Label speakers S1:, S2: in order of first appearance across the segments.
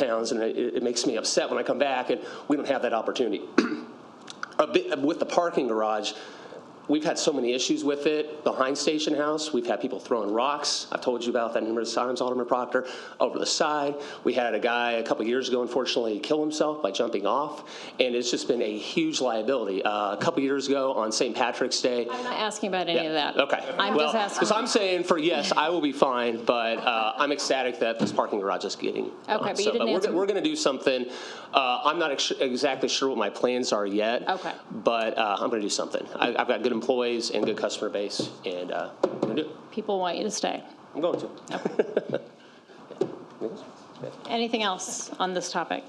S1: towns, and it, it makes me upset when I come back and we don't have that opportunity. a bit with the parking garage. We've had so many issues with it. Behind Station House, we've had people throwing rocks. I've told you about that numerous times, Alderman Proctor, over the side. We had a guy a couple years ago, unfortunately, kill himself by jumping off, and it's just been a huge liability. Uh, a couple years ago on St. Patrick's Day,
S2: I'm not asking about any of that.
S1: Okay.
S2: I'm
S1: well,
S2: just asking.
S1: Because I'm saying for yes, I will be fine, but uh, I'm ecstatic that this parking garage is getting. Okay,
S2: but you didn't
S1: we're,
S2: answer-
S1: go- we're going to do something. Uh, I'm not ex- exactly sure what my plans are yet.
S2: Okay.
S1: But uh, I'm going to do something. I, I've got good employees and good customer base, and uh, I'm going to do it.
S2: People want you to stay.
S1: I'm going to.
S2: Anything else on this topic?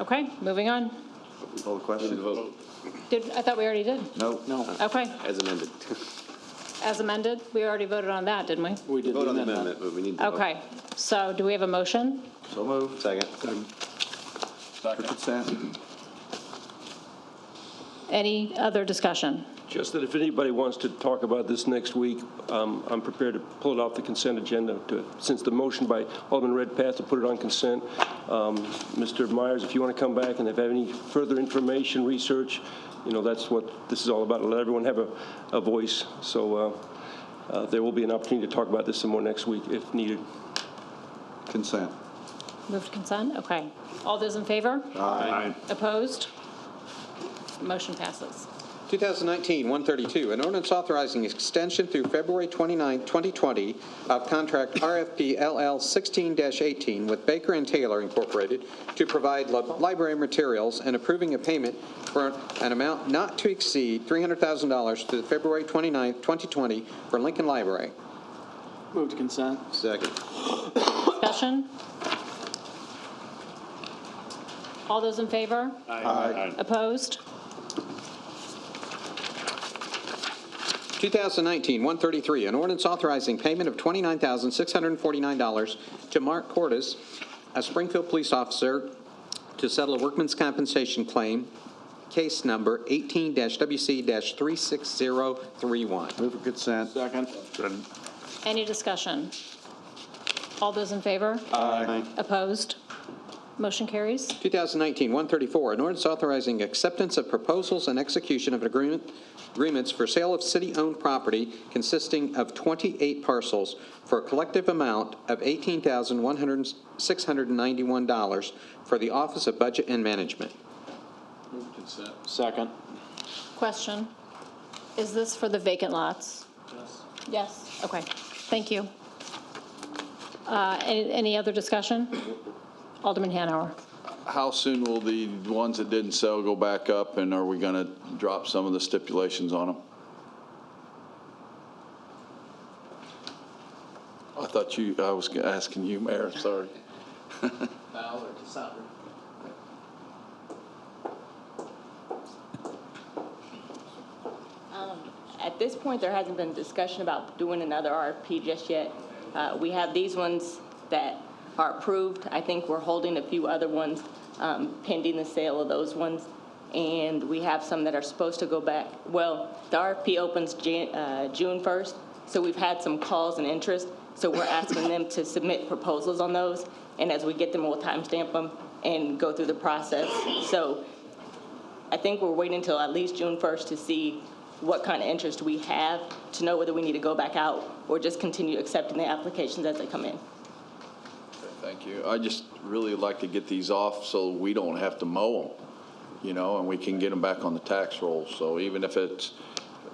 S2: Okay, moving on.
S3: Vote question?
S2: Did, I thought we already did.
S3: No. No.
S2: Okay,
S4: As amended.
S2: as amended, we already voted on that, didn't we?
S4: We did Vote on the amendment, but we need to. vote.
S2: Okay, so do we have a motion?
S3: So moved.
S4: Second.
S3: Richardson?
S2: Any other discussion?
S5: Just that if anybody wants to talk about this next week, um, I'm prepared to pull it off the consent agenda, to- since the motion by Alderman Redpath to put it on consent. um, Mr. Myers, if you want to come back and if you have any further information, research, you know, that's what this is all about, let everyone have a a voice. So uh, uh, there will be an opportunity to talk about this some more next week if needed.
S3: Consent.
S2: Move to consent? Okay. All those in favor?
S3: Aye.
S2: Opposed? Motion passes.
S6: 2019-132, an ordinance authorizing extension through February 29, 2020 of contract RFP LL 16-18 with Baker and Taylor Incorporated to provide li- library materials and approving a payment for an amount not to exceed $300,000 through February 29, 2020 for Lincoln Library.
S7: Move to consent.
S4: Second.
S2: Discussion? All those in favor?
S3: Aye.
S2: Opposed?
S6: 2019-133, an ordinance authorizing payment of $29,649 to Mark Cordes, a Springfield police officer, to settle a workman's compensation claim, case number 18-WC-36031.
S3: Move for consent.
S7: Second.
S2: Any discussion? All those in favor? Aye. Opposed? Motion carries.
S6: 2019-134, an ordinance authorizing acceptance of proposals and execution of an agreement, agreements for sale of city-owned property consisting of 28 parcels for a collective amount of $18,691 for the Office of Budget and Management.
S7: Second.
S2: Question, is this for the vacant lots? Yes. Yes, okay, thank you. Uh, Any any other discussion? Alderman Hanauer.
S8: How soon will the ones that didn't sell go back up, and are we going to drop some of the stipulations on them? I thought you, I was asking you, Mayor, sorry.
S9: At this point, there hasn't been discussion about doing another RFP just yet. Uh, We have these ones that are approved. I think we're holding a few other ones um, pending the sale of those ones. And we have some that are supposed to go back. Well, the RFP opens Jan- uh, June 1st, so we've had some calls and interest. So we're asking them to submit proposals on those. And as we get them, we'll timestamp them and go through the process. So I think we're waiting until at least June 1st to see what kind of interest we have, to know whether we need to go back out or just continue accepting the applications as they come in.
S8: Thank you. I just really like to get these off so we don't have to mow them, you know, and we can get them back on the tax roll. So even if it's,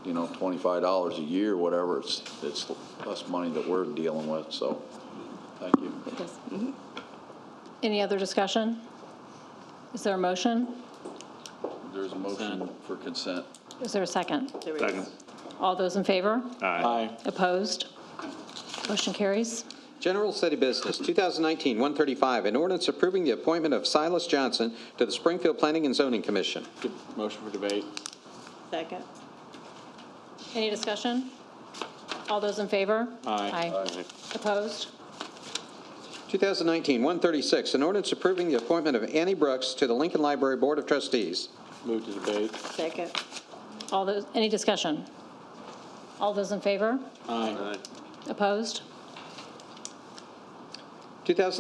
S8: you know, $25 a year, whatever, it's, it's less money that we're dealing with, so, thank you.
S9: Yes.
S2: Any other discussion? Is there a motion?
S8: There's a motion for consent.
S2: Is there a second? All those in favor?
S7: Aye.
S2: Opposed? Motion carries.
S6: General City Business, 2019-135, an ordinance approving the appointment of Silas Johnson to the Springfield Planning and Zoning Commission.
S7: Motion for debate.
S9: Second.
S2: Any discussion? All those in favor?
S7: Aye.
S2: Aye. Opposed?
S6: 2019-136, an ordinance approving the appointment of Annie Brooks to the Lincoln Library Board of Trustees.
S7: Move to debate.
S9: Second.
S2: All those, any discussion? All those in favor?
S7: Aye.
S2: Opposed?
S6: 2000